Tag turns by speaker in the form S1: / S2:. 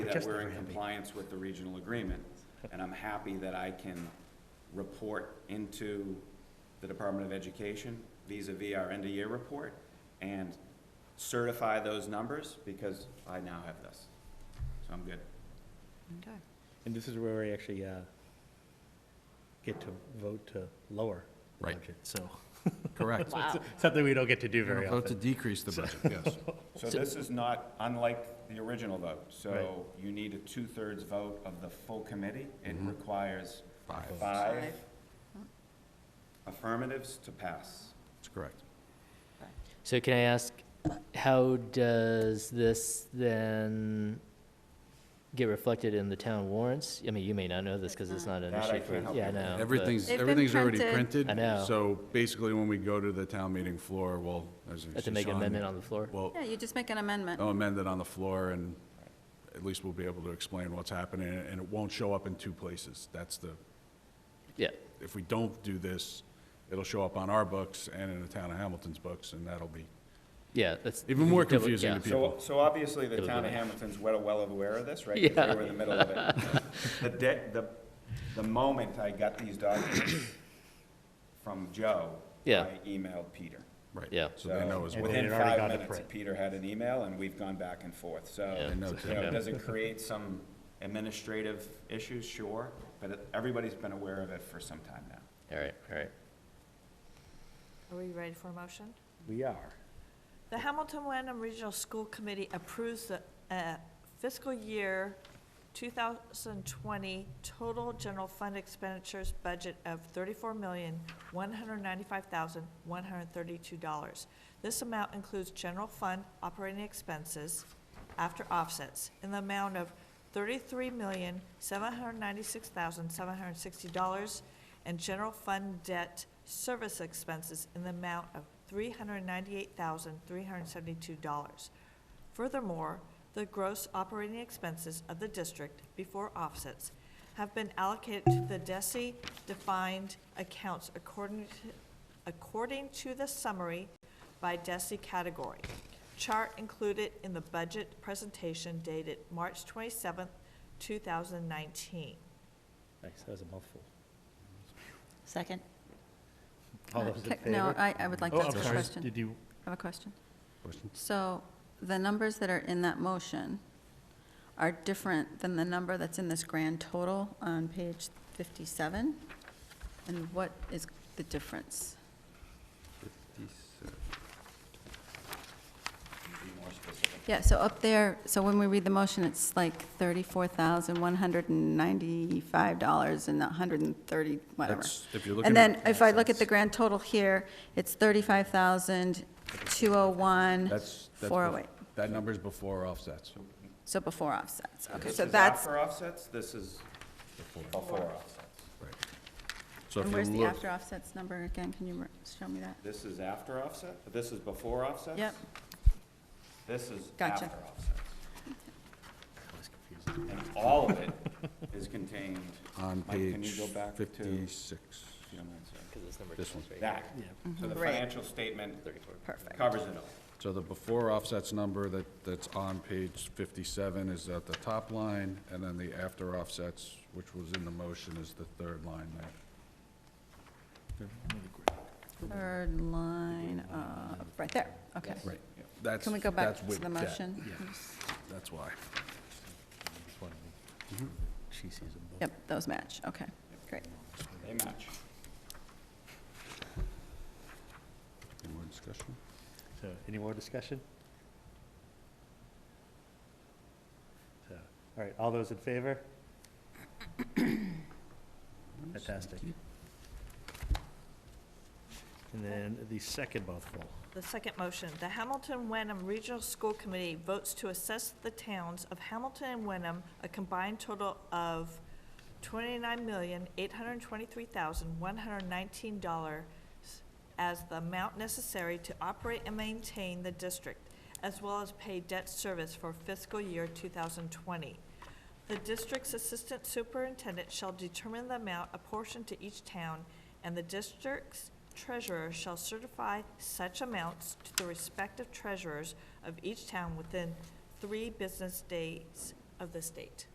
S1: that we're in compliance with the regional agreement, and I'm happy that I can report into the Department of Education vis a vis our end-of-year report and certify those numbers because I now have this. So I'm good.
S2: Okay.
S3: And this is where we actually uh, get to vote to lower the
S4: Right.
S3: budget, so.
S4: Correct.
S2: Wow.
S3: Something we don't get to do very
S4: Vote to
S3: often.
S4: decrease the budget, yes.
S1: So this is not unlike the original vote. So
S3: Right.
S1: you need a two-thirds vote of the full committee. It requires
S4: Five.
S1: five
S2: Five.
S1: affirmatives to pass.
S4: That's correct.
S5: So can I ask, how does this then get reflected in the town warrants? I mean, you may not know this because it's not an
S1: That I
S5: issue for,
S1: can't help
S5: yeah, I
S1: you with.
S5: know. but-
S4: Everything's,
S2: They've been
S4: everything's already
S2: printed.
S4: printed.
S5: I know.
S4: So basically, when we go to the town meeting floor, we'll, as.
S5: Have to make an amendment on the floor?
S4: Well,
S2: Yeah, you just make an amendment.
S3: Oh.
S4: I'll amend it on the floor, and at least we'll be able to explain what's happening, and it won't show up in two places. That's the,
S5: Yeah,
S4: if we don't do this, it'll show up on our books and in the town of Hamilton's books, and that'll be
S5: yeah, that's.
S4: even more
S5: double-
S4: confusing
S5: yeah.
S4: to
S1: So,
S4: people.
S1: so obviously, the
S5: It was
S1: town of
S5: nice.
S1: Hamilton's well, well aware of this, right? 'Cause They were in the middle of it. The de the, the moment I got these documents from Joe,
S5: Yeah.
S1: I emailed Peter.
S4: Right.
S5: Yeah.
S4: So they know as
S1: So
S3: And then-
S4: well.
S1: Within
S3: it already
S1: five
S3: gone to
S1: minutes,
S3: print.
S1: Peter had an email, and we've gone back and forth, so.
S5: Yeah.
S4: They know,
S1: You know,
S4: too.
S1: does it create some administrative issues? Sure, but it- everybody's been aware of it for some time now.
S5: All right, all right.
S6: Are we ready for a motion?
S3: We are.
S6: The Hamilton Wyndham Regional School Committee approves the uh, fiscal year 2020 total general fund expenditures budget of $34,195,132. This amount includes general fund operating expenses after offsets in the amount of $33,796,760 and general fund debt service expenses in the amount of $398,372. Furthermore, the gross operating expenses of the district before offsets have been allocated to the DESI defined accounts according, to- according to the summary by DESI category. Chart included in the budget presentation dated March 27, 2019.
S3: Nice, that was a mouthful.
S2: Second?
S3: All those in
S2: No,
S3: favor?
S2: I, I would like
S3: Oh,
S2: to
S3: I'm
S2: ask a
S3: sorry,
S2: question.
S3: Did you,
S2: I have a question. So the numbers that are in that motion are different than the number that's in this grand total on page 57? And what is the difference? Yeah, so up there, so when we read the motion, it's like $34,195 and 130, whatever.
S4: That's- if you're looking
S2: And
S4: at-
S2: then if I look at the grand total here, it's 35,201,
S4: That's, that's,
S2: 408.
S4: bef- that number's before offsets.
S2: So before offsets, okay,
S1: This
S2: so
S1: is not
S2: that's,
S1: for offsets, this is before offsets.
S4: Right. So if
S2: and
S4: you
S2: where's the
S4: look-
S2: after offsets number again? Can you re- show me that?
S1: This is after offset, this is before offsets?
S2: Yep,
S1: This is
S2: Gotcha.
S1: after offsets. And all of it is contained.
S4: On
S1: Mike, can you
S4: page
S1: go back to-
S4: fifty-six,
S1: if you don't mind, sir?
S4: this one.
S1: That, so the
S2: Mm-hmm. Right.
S1: financial statement
S2: perfect.
S1: covers it all.
S4: So the before offsets number that, that's on page fifty-seven is at the top line, and then the after offsets, which was in the motion, is the third line there.
S2: Third line, uh, right there, okay.
S4: Right. That's,
S2: Can we go back
S4: that's
S2: to
S4: with
S2: the
S4: debt.
S2: motion?
S4: That's why.
S3: Just wanted to- she sees them both.
S2: Yep, those match, okay, great.
S1: They match.
S4: Any more discussion?
S3: So, any more discussion? So, all right, all those in favor? Fantastic. And then the second mouthful.
S6: The second motion, the Hamilton Wenham Regional School Committee votes to assess the towns of Hamilton and Wenham a combined total of twenty-nine million, eight hundred and twenty-three thousand, one hundred and nineteen dollars as the amount necessary to operate and maintain the district, as well as pay debt service for fiscal year two thousand twenty. The district's assistant superintendent shall determine the amount apportioned to each town, and the district's treasurer shall certify such amounts to the respective treasurers of each town within three business days of this date.